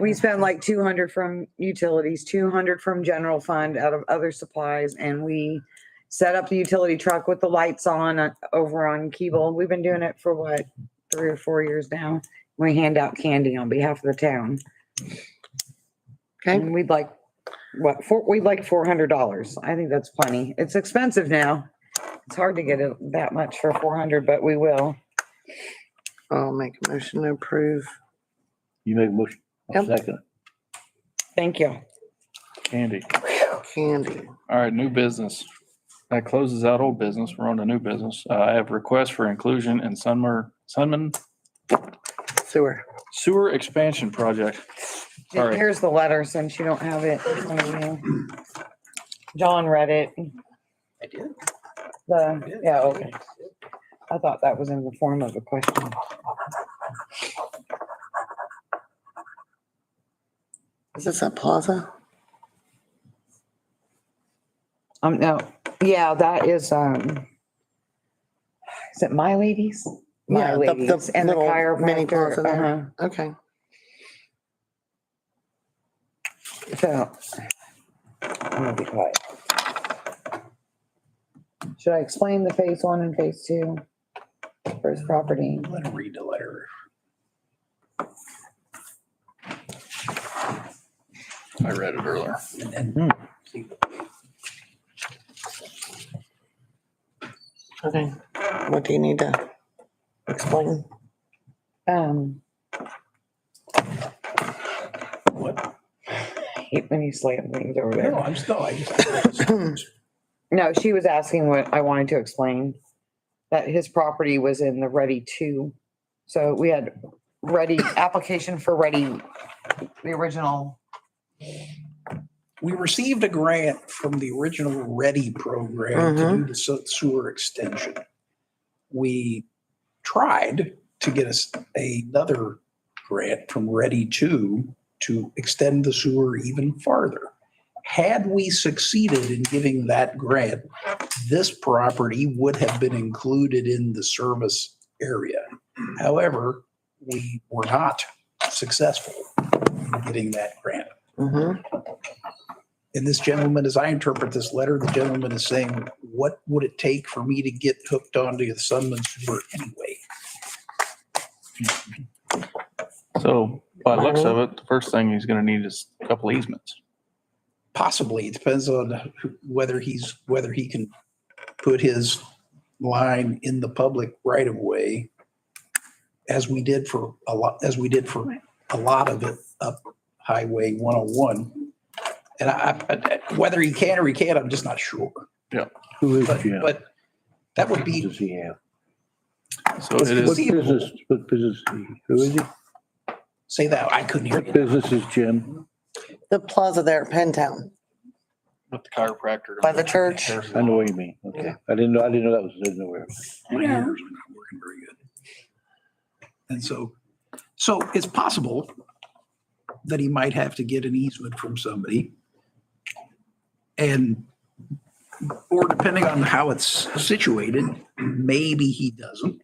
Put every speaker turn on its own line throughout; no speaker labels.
We spend like two hundred from utilities, two hundred from general fund out of other supplies, and we set up the utility truck with the lights on uh, over on Keeble. We've been doing it for what, three or four years now? We hand out candy on behalf of the town.
Okay.
And we'd like, what, four, we'd like four hundred dollars. I think that's plenty. It's expensive now. It's hard to get it that much for four hundred, but we will.
I'll make a motion to approve.
You make a motion, I'll
Yep.
second it.
Thank you.
Candy.
Candy.
All right, new business. That closes out old business. We're on to new business. Uh, I have requests for inclusion in Sunmer, Sunman
Sewer.
Sewer Expansion Project. All right.
Here's the letter since you don't have it. in front of you. John read it.
I do.
The, yeah, okay. I thought that was in the form of a question.
Is this a plaza?
Um, no, yeah, that is, um, is it My Ladies? My
Yeah, the- the
Ladies and the
little mini plaza
chiropractor.
there.
uh-huh.
Okay.
uh-huh. So, I'm gonna be quiet. Should I explain the phase one and phase two for his property?
I'm gonna read the letter.
I read it earlier.
and then-
Okay. What do you need to explain?
Um,
What?
I hate when you slam things over
No,
there.
I'm still, I just.
No, she was asking what I wanted to explain, that his property was in the ready two. So we had ready, application for ready, the original.
We received a grant from the original READY program to do the se- sewer extension. We tried to get us another grant from READY 2 to extend the sewer even farther. Had we succeeded in getting that grant, this property would have been included in the service area. However, we were not successful in getting that grant.
Mm-hmm.
And this gentleman, as I interpret this letter, the gentleman is saying, what would it take for me to get hooked onto the Sunman sewer anyway?
So by the looks of it, the first thing he's gonna need is a couple easements.
Possibly, it depends on who- whether he's, whether he can put his line in the public right of way as we did for a lot, as we did for a lot of it up Highway 101. And I, I- I- whether he can or he can't, I'm just not sure.
Who is
But,
Jim?
but that would be
Does he have?
So it
What
is,
conceivable.
business, what business, who is he?
Say that, I couldn't hear
What
you.
business is Jim?
The plaza there at Penn Town.
with the chiropractor.
By the church.
I know what you mean. Okay. I didn't know, I didn't know that was in nowhere.
My ears are not working very good. And so, so it's possible that he might have to get an easement from somebody. And, or depending on how it's situated, maybe he doesn't.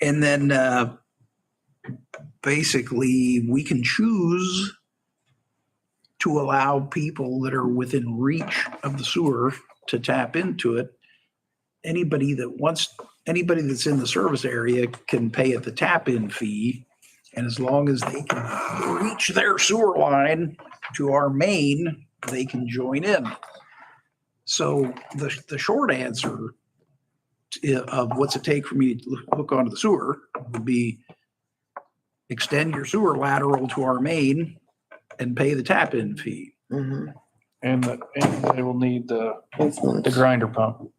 And then, uh, basically, we can choose to allow people that are within reach of the sewer to tap into it anybody that wants, anybody that's in the service area can pay at the tap-in fee. And as long as they can reach their sewer line to our main, they can join in. So the, the short answer to- of what's it take for me to hook onto the sewer would be extend your sewer lateral to our main and pay the tap-in fee.
Mm-hmm.
And, the- and they will need the, the
Easements.
grinder pump.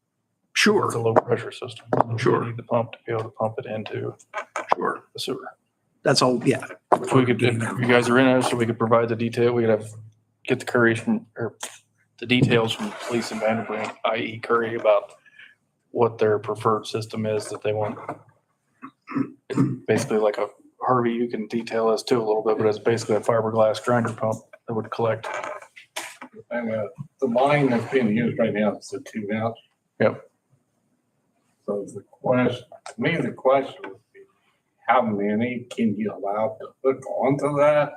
Sure,
It's a low pressure system.
Sure.
They need The pump to be able to pump it into
sure.
the sewer.
That's all, yeah.
If we could, if you guys are in it, so we could provide the detail, we could have, get the curries from, or the details from police in Vanderbilt, i.e. Curry, about what their preferred system is that they want. Basically like a, Harvey, you can detail this too a little bit, but it's basically a fiberglass grinder pump that would collect.
And uh, the line that's being used right now is the two out.
Yep.
So the question, to me, the question would be, how many can you allow to hook onto that?